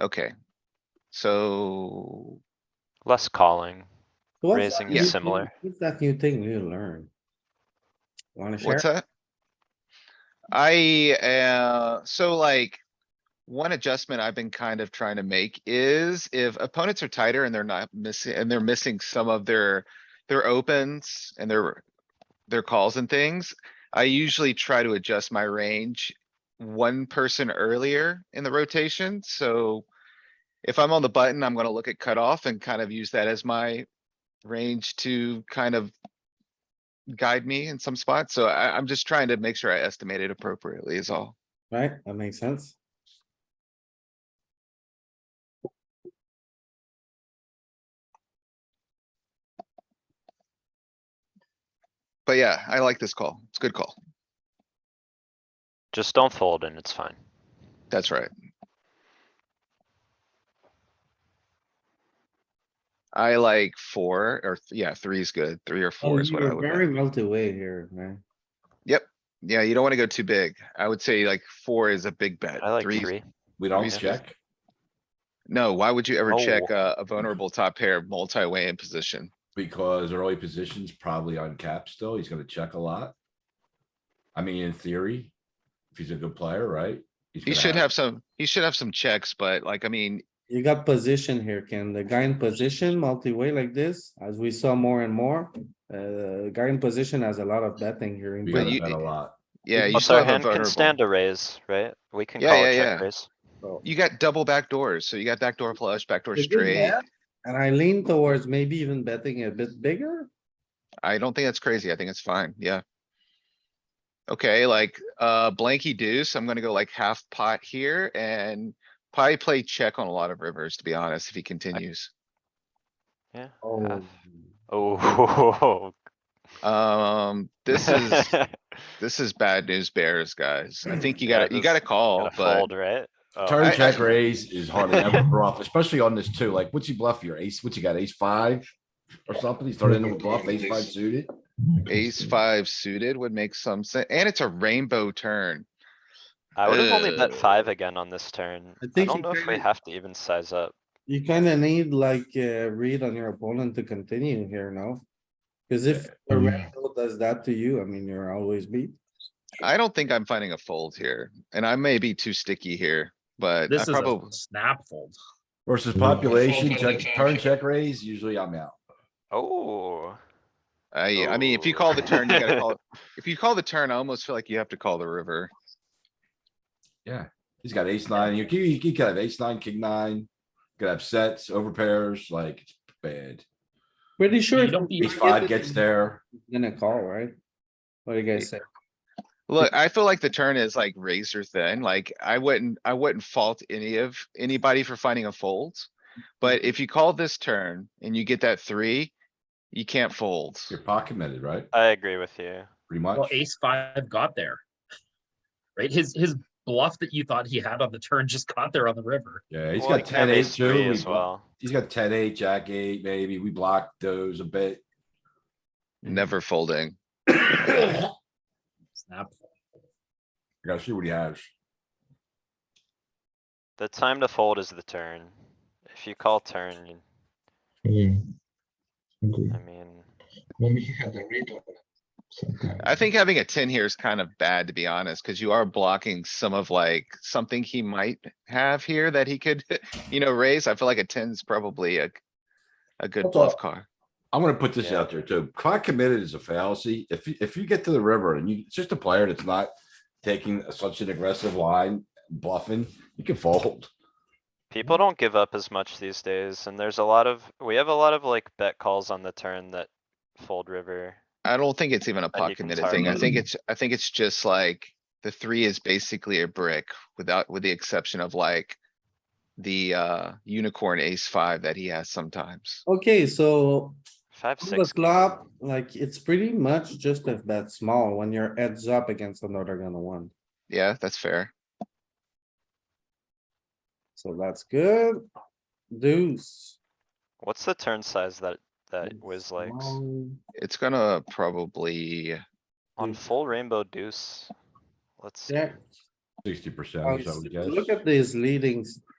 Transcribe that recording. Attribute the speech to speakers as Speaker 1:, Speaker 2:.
Speaker 1: Okay. So,
Speaker 2: less calling.
Speaker 3: So what's
Speaker 2: Raising
Speaker 3: that
Speaker 2: is
Speaker 3: new
Speaker 2: similar.
Speaker 3: thing- What's that new thing you learned? Wanna share?
Speaker 1: what's that? I, uh, so like. One adjustment I've been kind of trying to make is if opponents are tighter and they're not missing, and they're missing some of their, their opens and their. Their calls and things, I usually try to adjust my range one person earlier in the rotation, so. If I'm on the button, I'm gonna look at cutoff and kind of use that as my range to kind of guide me in some spots, so I, I'm just trying to make sure I estimate it appropriately is all.
Speaker 3: Right, that makes sense.
Speaker 1: But yeah, I like this call. It's a good call.
Speaker 2: Just don't fold and it's fine.
Speaker 1: That's right. I like four or, th- yeah, three is good. Three or
Speaker 3: Oh,
Speaker 1: four is
Speaker 3: you
Speaker 1: what I
Speaker 3: were
Speaker 1: would.
Speaker 3: very
Speaker 1: like.
Speaker 3: well to way here, man.
Speaker 1: Yeah, you don't wanna go too big. I would say like four is a big bet.
Speaker 2: I like
Speaker 1: Three's-
Speaker 2: three.
Speaker 4: We don't
Speaker 1: Reese's.
Speaker 4: check.
Speaker 1: No, why would you ever check
Speaker 2: Oh.
Speaker 1: uh, a vulnerable top pair multi-way in position?
Speaker 4: Because early position's probably on cap still. He's gonna check a lot. I mean, in theory, if he's a good player, right? He's
Speaker 1: He
Speaker 4: gonna
Speaker 1: should have some, he should have some checks, but like, I mean,
Speaker 3: You got position here, Ken. The guy in position, multi-way like this, as we saw more and more. Uh, guy in position has a lot of betting here. in
Speaker 4: We
Speaker 1: But
Speaker 4: gotta
Speaker 3: position.
Speaker 1: you-
Speaker 4: bet a lot.
Speaker 1: yeah, you
Speaker 2: Plus
Speaker 1: still
Speaker 2: our
Speaker 1: have a
Speaker 2: hand Oh, can
Speaker 1: vulnerable.
Speaker 2: stand a raise, right? We can
Speaker 1: Yeah,
Speaker 2: call
Speaker 1: yeah,
Speaker 2: a
Speaker 1: yeah.
Speaker 2: check raise.
Speaker 1: You got double back doors, so you got backdoor flush, backdoor
Speaker 3: Is it
Speaker 1: straight.
Speaker 3: bad? And I lean towards maybe even betting a bit bigger.
Speaker 1: I don't think that's crazy. I think it's fine, yeah. Okay, like, uh, blanky deuce, I'm gonna go like half pot here and probably play check on a lot of rivers, to be honest, if he continues. Ah.
Speaker 3: Oh,
Speaker 2: Oh.
Speaker 1: Um, this is, this is bad news bears, guys. I think you
Speaker 2: Yeah,
Speaker 1: gotta, you
Speaker 2: this-
Speaker 1: gotta call,
Speaker 2: Gotta
Speaker 1: but
Speaker 2: fold, right? Oh,
Speaker 4: Turn
Speaker 1: I-
Speaker 4: check raise is hard to ever bluff, especially on this too. Like, what's he bluff here? Ace, what's he got? Ace five? Or something? He's turning into a bluff, ace five suited.
Speaker 1: ace five suited would make some sense, and it's a rainbow turn.
Speaker 2: I would have only bet
Speaker 1: Uh,
Speaker 2: five again on this turn.
Speaker 3: I
Speaker 2: I
Speaker 3: think
Speaker 2: don't
Speaker 3: you
Speaker 2: know if we
Speaker 3: kinda-
Speaker 2: have to even size up.
Speaker 3: You kinda need like a read on your opponent to continue here, no? Cause if a rando does that to you, I mean, you're always beat.
Speaker 1: I don't think I'm finding a fold here, and I may be too sticky here, but I
Speaker 5: This is a
Speaker 1: probably,
Speaker 5: snap fold.
Speaker 4: Versus
Speaker 1: Mm-hmm.
Speaker 4: population, check, turn check raise, usually I'm out.
Speaker 2: Oh,
Speaker 1: Uh, I, I mean, if you
Speaker 2: Oh.
Speaker 1: call the turn, you gotta call, if you call the turn, I almost feel like you have to call the river.
Speaker 4: He's got ace nine. You can, you can have ace nine, king nine. Could have sets, over pairs, like, it's bad.
Speaker 3: Pretty sure.
Speaker 5: You don't-
Speaker 3: if
Speaker 4: Ace
Speaker 3: you
Speaker 4: five
Speaker 3: get
Speaker 4: gets
Speaker 3: it,
Speaker 4: there.
Speaker 3: you're Gonna call, right? What do you guys say?
Speaker 1: Look, I feel like the turn is like razor thin, like I wouldn't, I wouldn't fault any of, anybody for finding a fold. But if you call this turn and you get that three, you can't fold.
Speaker 4: You're pot committed, right?
Speaker 2: I agree with you.
Speaker 4: Pretty
Speaker 5: Well,
Speaker 4: much.
Speaker 5: ace five got there. Right? His, his bluff that you thought he had on the turn just got there on the river.
Speaker 4: Yeah, he's
Speaker 2: Well, you
Speaker 4: got
Speaker 2: can have
Speaker 4: ten eight
Speaker 2: ace three
Speaker 4: too. We
Speaker 2: As
Speaker 4: blo-
Speaker 2: well.
Speaker 4: He's got ten eight, jack eight, maybe. We blocked those a bit.
Speaker 1: Never folding.
Speaker 4: I
Speaker 5: Snap. fold.
Speaker 4: gotta see what he has.
Speaker 2: The time to fold is the turn. If you call turn, you-
Speaker 6: Yeah.
Speaker 4: Hmm.
Speaker 6: Okay.
Speaker 2: I mean,
Speaker 6: Maybe he had a read on it. sometime.
Speaker 1: I think having a ten here is kind of bad, to be honest, cuz you are blocking some of like, something he might have here that he could, you know, raise. I feel like a 10's probably a. A good
Speaker 4: Hold
Speaker 1: bluff
Speaker 4: up.
Speaker 1: card.
Speaker 4: I'm gonna put this
Speaker 2: Yeah.
Speaker 4: out there too. Pot committed is a fallacy. If, you- if you get to the river and you, it's just a player that's not taking such an aggressive line, bluffing, you can fold.
Speaker 2: people don't give up as much these days and there's a lot of, we have a lot of like bet calls on the turn that fold river.
Speaker 1: I don't think it's even a pot
Speaker 2: think it's
Speaker 1: committed
Speaker 2: hard
Speaker 1: thing. I
Speaker 2: mode.
Speaker 1: think it's, I think it's just like, the three is basically a brick without, with the exception of like. The uh unicorn ace five that he has sometimes.
Speaker 3: Okay, so
Speaker 2: Five,
Speaker 3: on the
Speaker 2: six.
Speaker 3: flop, like it's pretty much just a bet small when your heads up against another gonna one.
Speaker 1: Yeah, that's fair.
Speaker 3: So that's good. Deuce.
Speaker 2: What's the turn size that, that whiz likes?
Speaker 3: Small.
Speaker 1: It's gonna probably,
Speaker 2: On
Speaker 3: Mm.
Speaker 2: full rainbow deuce. Let's see.
Speaker 3: Check.
Speaker 4: Sixty percent,
Speaker 3: Uh,
Speaker 4: I would guess.
Speaker 3: Look at these leading